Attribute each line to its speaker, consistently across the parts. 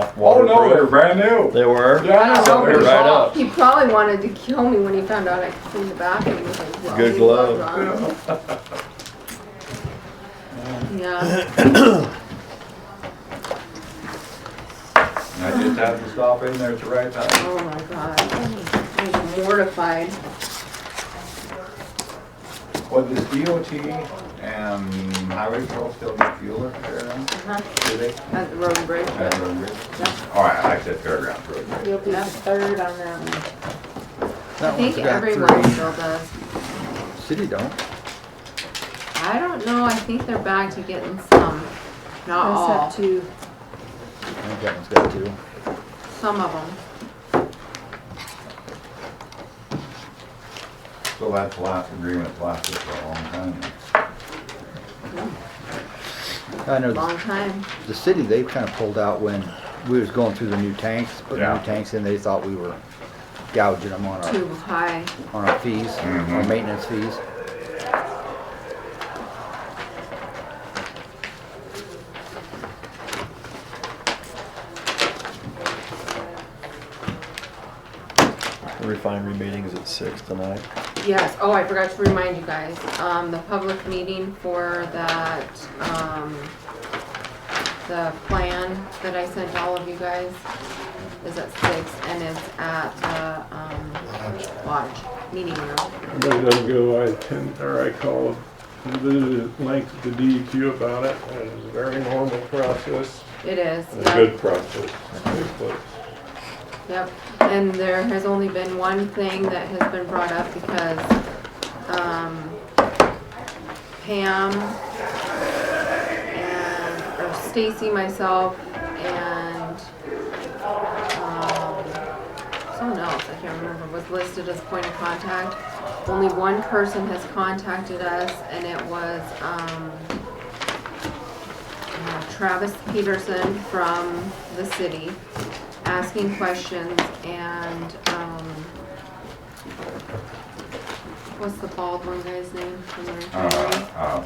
Speaker 1: Oh, no, they're
Speaker 2: waterproof.
Speaker 1: brand new.
Speaker 2: They were?
Speaker 1: Yeah,
Speaker 3: I don't
Speaker 1: they're
Speaker 3: know.
Speaker 2: Right up.
Speaker 3: He probably wanted to kill me when he found out I could clean the bathroom with his glove.
Speaker 2: Good glove.
Speaker 3: Yeah,
Speaker 1: I just had to stop in there at the right time.
Speaker 3: oh my god. I was mortified.
Speaker 1: Well, this DOT and highway patrol still get fuel up there, then?
Speaker 3: Uh-huh.
Speaker 1: do they?
Speaker 3: At the road and bridge,
Speaker 1: At
Speaker 3: but
Speaker 1: Road Bridge? All right, I said fairgrounds road. Bridge.
Speaker 3: you'll be the third on that one. I
Speaker 4: That one's
Speaker 3: think
Speaker 4: got
Speaker 3: everyone
Speaker 4: three.
Speaker 3: still does.
Speaker 4: City don't.
Speaker 3: I don't know, I think they're back to getting some, not all,
Speaker 5: to.
Speaker 4: I think that one's got two.
Speaker 3: some of them.
Speaker 1: So that's the last agreement lasted for a long time. then.
Speaker 4: I know the-
Speaker 3: Long time.
Speaker 4: the city, they kind of pulled out when we was going through the new tanks, putting new
Speaker 1: Yeah.
Speaker 4: tanks in, they thought we were gouging them on our,
Speaker 3: Too high.
Speaker 4: on our fees, our
Speaker 1: Mhm.
Speaker 4: maintenance fees.
Speaker 2: The Refinery meeting's at six tonight.
Speaker 3: Yes, oh, I forgot to remind you guys, um, the public meeting for that, um, the plan that I sent all of you guys is at six and it's at the, um, lodge, meeting room.
Speaker 6: Everybody doesn't go, I attend, or I call the length of the DEQ about it, and it's a very normal process,
Speaker 3: It is,
Speaker 6: and a
Speaker 3: yep,
Speaker 6: good process. Good place.
Speaker 3: yep. And there has only been one thing that has been brought up because, um, Pam and, or Stacy, myself, and, um, someone else, I can't remember, was listed as point of contact. Only one person has contacted us and it was, um, uh, Travis Peterson from the city, asking questions and, um, what's the bald one guy's name from the retiree?
Speaker 1: Uh, uh,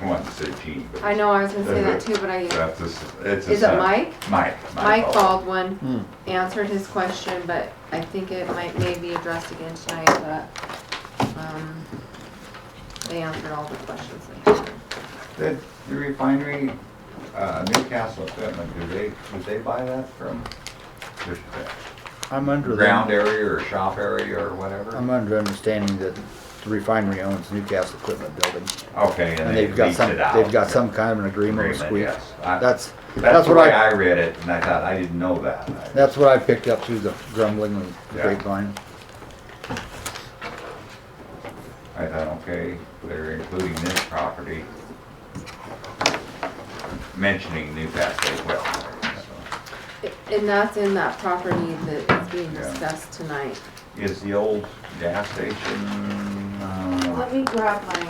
Speaker 1: I wanted to say Gene, but
Speaker 3: I know, I was gonna say that too, but I,
Speaker 1: that's, a s- it's a.
Speaker 3: is it
Speaker 1: son.
Speaker 3: Mike?
Speaker 1: Mike.
Speaker 3: Mike
Speaker 1: Baldwin.
Speaker 3: Baldwin answered his question, but I think it might, may be addressed again tonight, but, um, they answered all the questions. they had.
Speaker 1: Did the refinery, uh, Newcastle equipment, do they, did they buy that from the
Speaker 4: I'm under,
Speaker 1: ground
Speaker 4: the-
Speaker 1: area or shop area or
Speaker 4: I'm
Speaker 1: whatever?
Speaker 4: under understanding that the refinery owns Newcastle Equipment Building.
Speaker 1: Okay,
Speaker 4: And
Speaker 1: and they
Speaker 4: they've got
Speaker 1: leased
Speaker 4: some,
Speaker 1: it out.
Speaker 4: they've got some kind of an agreement with
Speaker 1: Agreement,
Speaker 4: Squeak.
Speaker 1: yes. I-
Speaker 4: That's,
Speaker 1: That's
Speaker 4: that's
Speaker 1: the
Speaker 4: what
Speaker 1: way
Speaker 4: I,
Speaker 1: I read it and I thought, I didn't know that. I-
Speaker 4: that's what I picked up through the grumbling and the
Speaker 1: Yeah.
Speaker 4: grapevine.
Speaker 1: I thought, okay, they're including this property, mentioning Newcastle as well. So,
Speaker 3: And that's in that property that is being
Speaker 1: Yeah.
Speaker 3: discussed tonight.
Speaker 1: Is the old gas station, uh,
Speaker 5: Let me grab my,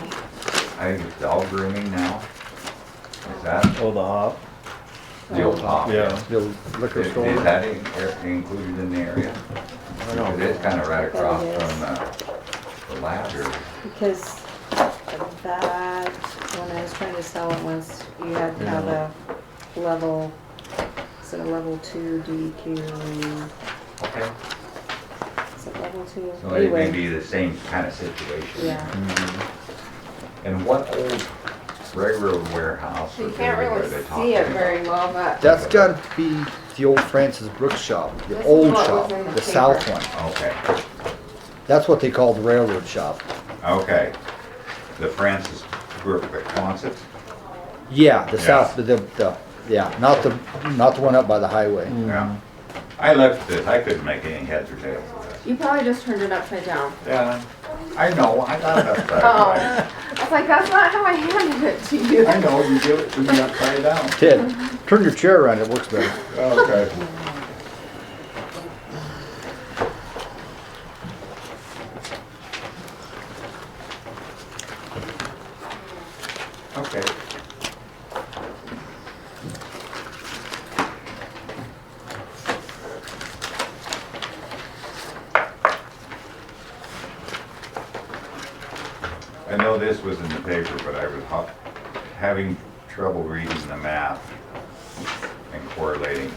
Speaker 1: I think it's dog grooming now? Is that
Speaker 2: Oh, the hop?
Speaker 1: the old hop?
Speaker 2: Yeah.
Speaker 4: The liquor
Speaker 1: Is is
Speaker 4: store.
Speaker 1: that in- er, included in the area?
Speaker 2: I
Speaker 1: It
Speaker 2: know.
Speaker 1: is kind of right across
Speaker 5: It is.
Speaker 1: from uh, the ladder.
Speaker 5: because of that, when I was trying to sell it once, you had to have a level, is it a level two DEQ?
Speaker 1: Okay.
Speaker 5: Is it level two?
Speaker 1: So it may
Speaker 5: Anyway,
Speaker 1: be the same kind of situation.
Speaker 5: yeah.
Speaker 2: Mm-hmm.
Speaker 1: And what old railroad warehouse?
Speaker 3: You
Speaker 1: or
Speaker 3: can't
Speaker 1: where
Speaker 3: really
Speaker 1: they
Speaker 3: see it
Speaker 1: talking?
Speaker 3: very well, but
Speaker 4: That's gotta be the old Francis Brooks shop, the
Speaker 3: This is
Speaker 4: old
Speaker 3: what was
Speaker 4: shop,
Speaker 3: in the
Speaker 4: the south
Speaker 3: paper.
Speaker 4: one.
Speaker 1: Okay,
Speaker 4: That's what they call the railroad shop.
Speaker 1: okay. The Francis Group of Quonset?
Speaker 4: Yeah, the
Speaker 1: Yeah.
Speaker 4: south, the, the, yeah, not the, not the one up by the highway.
Speaker 2: Mm-hmm.
Speaker 1: Yeah. I left it, I couldn't make any heads or tails of this.
Speaker 3: you probably just turned it upside down.
Speaker 1: Yeah, I know, I got it upside down.
Speaker 3: I was like, that's not how I handed it to you.
Speaker 1: I know, you give it to me upside down.
Speaker 4: Ted, turn your chair around, it works better.
Speaker 1: Okay. Okay. I know this was in the paper, but I was ho- having trouble reading the math and correlating